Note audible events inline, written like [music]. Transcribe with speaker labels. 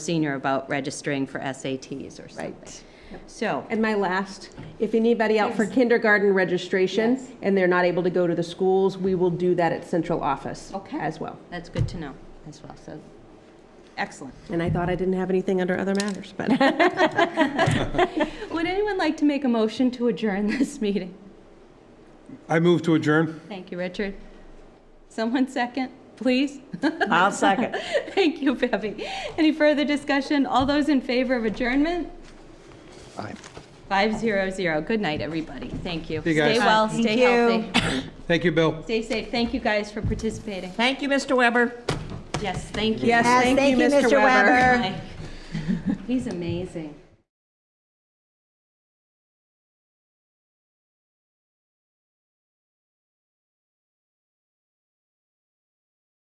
Speaker 1: senior about registering for SATs or something.
Speaker 2: Right.
Speaker 1: So,
Speaker 2: And my last, if anybody out for kindergarten registration and they're not able to go to the schools, we will do that at central office
Speaker 1: Okay.
Speaker 2: as well.
Speaker 1: that's good to know as well, so, excellent.
Speaker 2: And I thought I didn't have anything under other matters, but
Speaker 1: Would anyone like to make a motion to adjourn [laughs] this meeting?
Speaker 3: I move to adjourn.
Speaker 1: Thank you, Richard. Someone second, please? [laughs]
Speaker 4: I'll second.
Speaker 1: Thank you, Bevy. Any further discussion? All those in favor of adjournment?
Speaker 3: Aye.
Speaker 1: Five zero zero. Good night, everybody. Thank you.
Speaker 3: you, guys.
Speaker 1: Stay well,
Speaker 4: Thank
Speaker 1: stay
Speaker 4: you.
Speaker 1: healthy,
Speaker 3: Thank you, Bill.
Speaker 1: stay safe. Thank you guys for participating.
Speaker 4: Thank you, Mr. Weber.
Speaker 1: Yes, thank you.
Speaker 2: yes,
Speaker 4: Yes,
Speaker 2: thank you, Mr. Weber.
Speaker 1: [laughs] He's amazing.